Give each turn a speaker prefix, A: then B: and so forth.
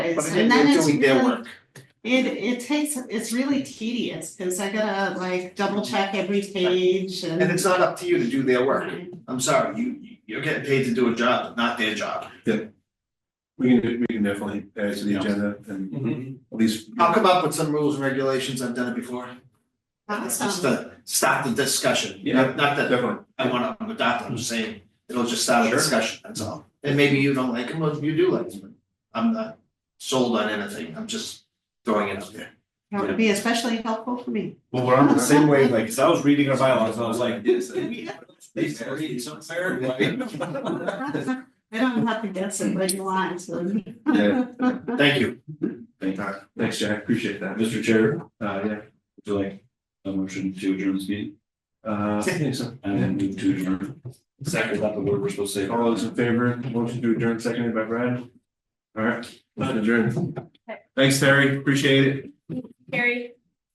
A: is,
B: But
A: and then
B: they're
A: it's
B: doing their
A: really,
B: work.
A: it it takes, it's really tedious, cause I gotta like double check every page and.
B: And it's not up to you to do their work.
A: Right.
B: I'm sorry, you, you're getting paid to do a job, not their job.
C: We can, do- we can definitely add to the agenda and
D: Mm-hmm.
C: at least.
B: I'll come up with some rules and regulations, I've done it before. Just
A: Awesome,
B: to stop the discussion,
C: Yeah.
B: not, not that
C: Definitely,
B: I wanna adopt, I'm just saying, it'll just start a
C: Sure.
B: discussion, that's all. And maybe you don't like them, or you do like them. I'm not sold on anything, I'm just throwing it out there.
A: that would be especially helpful for me.
D: Well, we're on the same wavelength, cause I was reading our bylaws, and I was like, this, we have. They read somewhere, like.
A: I don't have to guess it, but you want, so.
C: yeah,
B: Thank you.
C: thank- thanks, Jack, appreciate that.
D: Mr. Chair, uh, yeah, would you like a motion to adjourn this meeting?
C: Uh, yeah, so-
D: And then move to adjourn. Second, not the word we're supposed to say.
C: all those in favor, motion to adjourn, seconded by Brad. All right, motion adjourned. Thanks, Terry, appreciate it.
E: Carrie,